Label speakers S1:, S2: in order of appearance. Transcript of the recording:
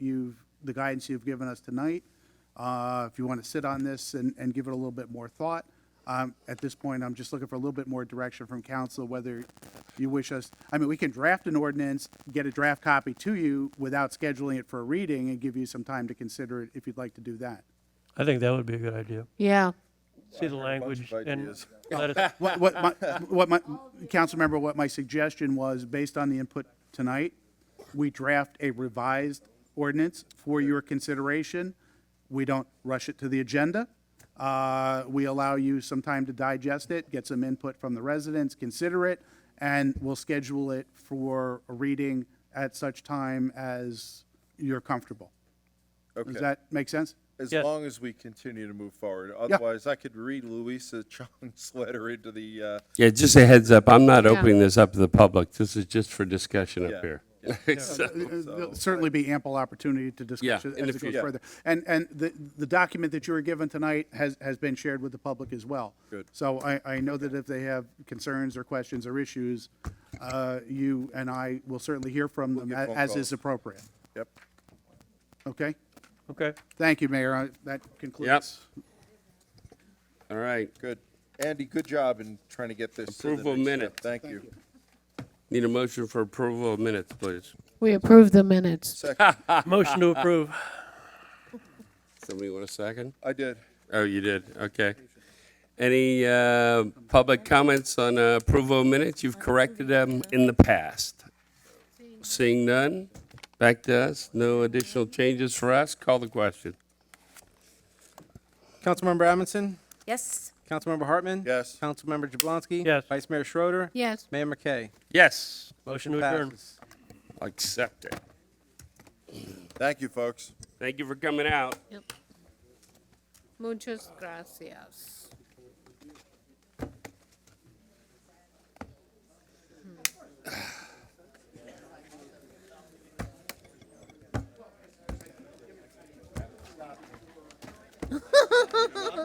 S1: the guidance you've given us tonight. Uh, If you want to sit on this and, and give it a little bit more thought. Um, At this point, I'm just looking for a little bit more direction from council, whether you wish us, I mean, we can draft an ordinance, get a draft copy to you without scheduling it for a reading and give you some time to consider it if you'd like to do that.
S2: I think that would be a good idea.
S3: Yeah,
S2: See the
S4: bunch
S2: language
S4: of
S2: and
S4: ideas.
S2: let us,
S1: What, what, my, what my, council member, what my suggestion was, based on the input tonight, we draft a revised ordinance for your consideration. We don't rush it to the agenda. Uh, we allow you some time to digest it, get some input from the residents, consider it, and we'll schedule it for a reading at such time as you're comfortable.
S4: Okay.
S1: Does that make sense?
S4: As
S2: Yes.
S4: long as we continue to move forward. Otherwise, I could read Louisa Chong's letter into the, uh,
S5: Yeah, just a heads up, I'm not opening this up to the public. This is just for discussion
S4: Yeah.
S5: up here. So-
S1: Uh, There'll certainly be ample opportunity to discuss
S5: Yeah,
S1: it as
S5: in the
S1: it goes
S5: future.
S1: further. And, and the, the document that you were given tonight has, has been shared with the public as well.
S4: Good.
S1: So I, I know that if they have concerns or questions or issues, uh, you and I will certainly hear from them
S4: get
S1: a-
S4: phone
S1: as
S4: calls.
S1: is appropriate.
S4: yep.
S1: Okay?
S2: okay.
S1: Thank you, Mayor. I- That concludes.
S5: All right,
S4: Good. Andy, good job in trying to get this to the
S5: Approval
S4: next step.
S5: minutes.
S4: Thank you.
S5: need a motion for approval of minutes, please.
S3: we approved the minutes.
S4: Second,
S2: Motion to approve.
S5: Somebody want a second?
S4: I did.
S5: Oh, you did, okay. Any uh, public comments on uh, approval of minutes? You've corrected them in the past. Seeing none, back to us, no additional changes for us, call the question.
S6: Councilmember Amundson?
S7: Yes.
S6: Councilmember Hartman?
S4: Yes.
S6: Councilmember Jablonski?
S2: Yes.
S6: Vice Mayor Schroeder?
S3: Yes,
S6: Mayor McKay?
S5: Yes,
S2: Motion to adjourn.
S6: Passes.
S5: accept it.
S4: Thank you, folks.
S5: Thank you for coming out.
S3: muchas gracias.